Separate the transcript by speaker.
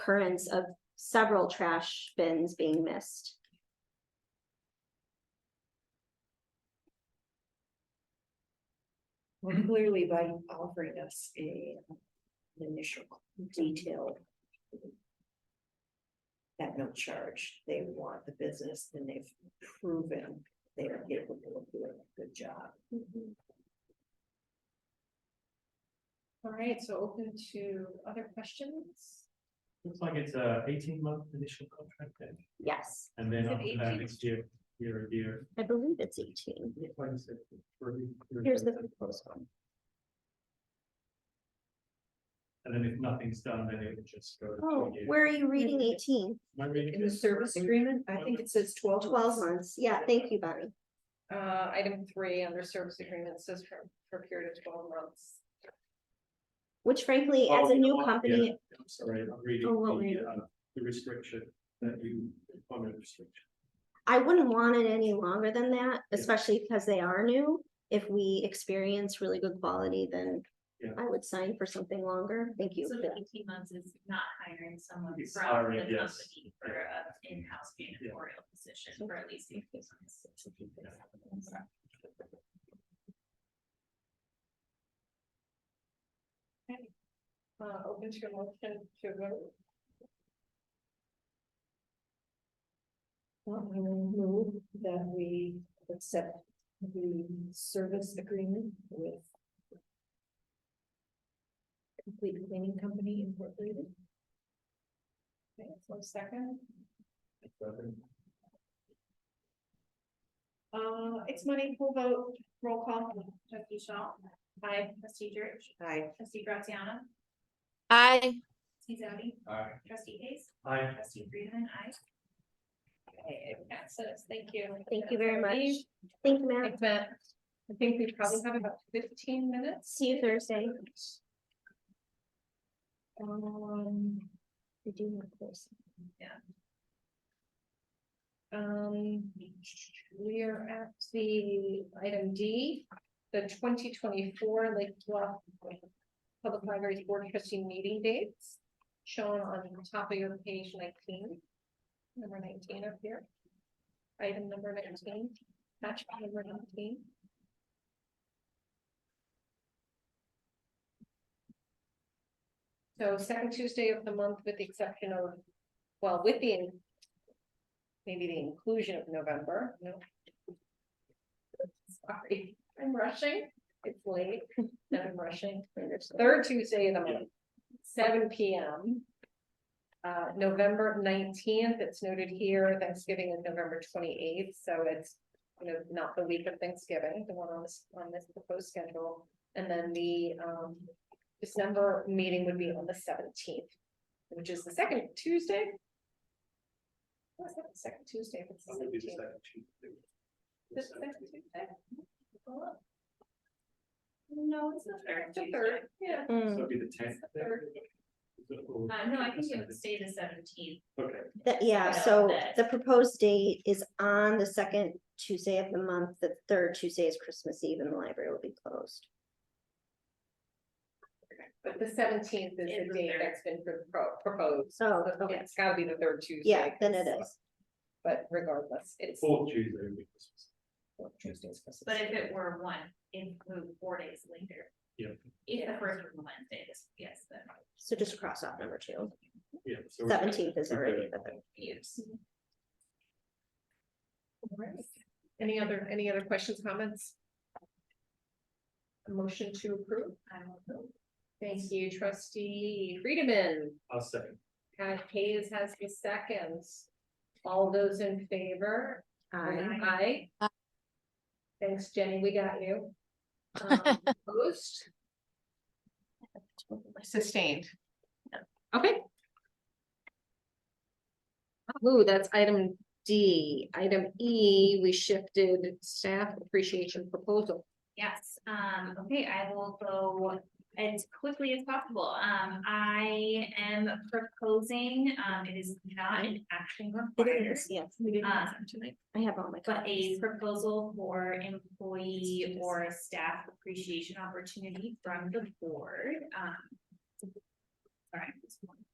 Speaker 1: occurrence of several trash bins being missed.
Speaker 2: Mm-hmm.
Speaker 3: Clearly by offering us a an initial detailed. At no charge, they want the business and they've proven they are capable of doing a good job.
Speaker 2: Mm-hmm. All right, so open to other questions?
Speaker 4: Looks like it's a eighteen month initial contract then,
Speaker 1: Yes,
Speaker 4: and then
Speaker 2: Is it
Speaker 4: after that
Speaker 2: 18?
Speaker 4: next year, year, a year.
Speaker 1: I believe it's eighteen.
Speaker 4: Like you said, for the- for
Speaker 1: Here's the proposed one.
Speaker 4: And then if nothing's done, then it would just go to
Speaker 1: Oh,
Speaker 4: two years.
Speaker 1: where are you reading eighteen?
Speaker 4: Am I reading
Speaker 3: In the
Speaker 4: this?
Speaker 3: service agreement, I think it says twelve.
Speaker 1: Twelve months. Yeah, thank you, Bonnie.
Speaker 2: Uh, item three, under service agreement says for, for a period of twelve months.
Speaker 1: Which frankly,
Speaker 4: Oh,
Speaker 1: as a new
Speaker 4: yeah,
Speaker 1: company,
Speaker 4: I'm sorry, I'm reading
Speaker 1: Oh, what were
Speaker 4: the,
Speaker 1: you-
Speaker 4: uh, the restriction that you, employment restriction.
Speaker 1: I wouldn't want it any longer than that,
Speaker 4: Yeah.
Speaker 1: especially because they are new. If we experience really good quality, then
Speaker 4: Yeah.
Speaker 1: I would sign for something longer. Thank you.
Speaker 5: So the eighteen months is not hiring someone
Speaker 4: It's
Speaker 5: from
Speaker 4: hiring,
Speaker 5: the
Speaker 4: yes.
Speaker 5: company for an in-house janitorial position for at least eighteen months.
Speaker 2: Uh, open to a motion to vote.
Speaker 3: Well, I will move that we accept the service agreement with. Complete Cleaning Company Incorporated.
Speaker 2: Okay, one second. Uh, it's money, full vote, roll call,
Speaker 5: Trustee Shaw, aye, trustee Church,
Speaker 3: Hi.
Speaker 5: trustee Graziano,
Speaker 6: Aye.
Speaker 5: trustee Zadi,
Speaker 4: Aye.
Speaker 5: trustee Hayes,
Speaker 4: Aye.
Speaker 5: trustee Friedman, aye.
Speaker 2: okay, it passes, thank you.
Speaker 1: Thank you very much. Thank you,
Speaker 2: I
Speaker 1: Matt.
Speaker 2: bet, I think we probably have about fifteen minutes.
Speaker 1: See you Thursday.
Speaker 2: Um,
Speaker 1: We do have a course.
Speaker 2: Um, we are at the item D, the twenty twenty-four Lake Bluff. Public Libraries Board Trustee Meeting Dates, shown on the top of your page nineteen. Number nineteen up here. Item number nineteen, match number nineteen. So second Tuesday of the month with the exception of, well, with the maybe the inclusion of November, no. Sorry, I'm rushing, it's late, and I'm rushing. Third Tuesday of the month, seven P M. Uh, November nineteenth, it's noted here, Thanksgiving is November twenty-eighth, so it's, you know, not the week of Thanksgiving, the one on this, on this proposed schedule. And then the, um, December meeting would be on the seventeenth, which is the second Tuesday. Oh, it's not the Second Tuesday, but it's the
Speaker 4: That would be the
Speaker 2: 17th.
Speaker 4: second Tuesday. The
Speaker 2: This
Speaker 4: second
Speaker 2: second
Speaker 4: Tuesday.
Speaker 2: Tuesday?
Speaker 5: No, it's the third
Speaker 2: The
Speaker 5: Tuesday.
Speaker 2: third, yeah.
Speaker 4: So
Speaker 1: Mm,
Speaker 4: it'd be the tenth.
Speaker 2: The third.
Speaker 5: Uh, no, I think it would stay the seventeenth.
Speaker 4: Okay,
Speaker 1: that- yeah,
Speaker 5: Yeah,
Speaker 1: so
Speaker 5: that-
Speaker 1: the proposed date is on the second Tuesday of the month. The third Tuesday is Christmas Eve and the library will be closed.
Speaker 2: But the seventeenth is
Speaker 5: Is
Speaker 2: the
Speaker 5: the
Speaker 2: date
Speaker 5: third.
Speaker 2: that's been pro- pro- proposed.
Speaker 1: Oh,
Speaker 2: So
Speaker 1: okay.
Speaker 2: It's gotta be the third Tuesday.
Speaker 1: Yeah, then it is.
Speaker 2: But regardless, it's.
Speaker 4: fourth Tuesday. would be Christmas.
Speaker 2: Tuesdays.
Speaker 5: But if it were one, it moved four days later.
Speaker 4: Yeah.
Speaker 5: If the first one Wednesday, this, yes, then.
Speaker 1: So just cross off number two.
Speaker 4: Yeah. so we're-
Speaker 1: Seventeenth is
Speaker 4: we're good.
Speaker 1: already the third.
Speaker 5: Yes.
Speaker 1: Mm-hmm.
Speaker 2: Alright. Any other, any other questions, comments? A Motion to approve?
Speaker 5: I will go.
Speaker 2: Thank you, trustee Friedman.
Speaker 4: I'll second.
Speaker 2: Uh, Hayes has the seconds. All those in favor?
Speaker 1: Aye.
Speaker 2: Aye. Thanks, Jenny, we got you. Um, Opposed? Sustained. Okay. Ooh, that's item D. Item E, we shifted staff appreciation proposal.
Speaker 5: Yes, um, okay, I will go as quickly as possible. Um, I am proposing, um, it is not an action
Speaker 1: It
Speaker 5: required.
Speaker 1: is, yes.
Speaker 5: Uh,
Speaker 1: I have all my.
Speaker 5: but a
Speaker 1: copies.
Speaker 5: proposal for employee or staff appreciation opportunity from the board, um. Sorry, just one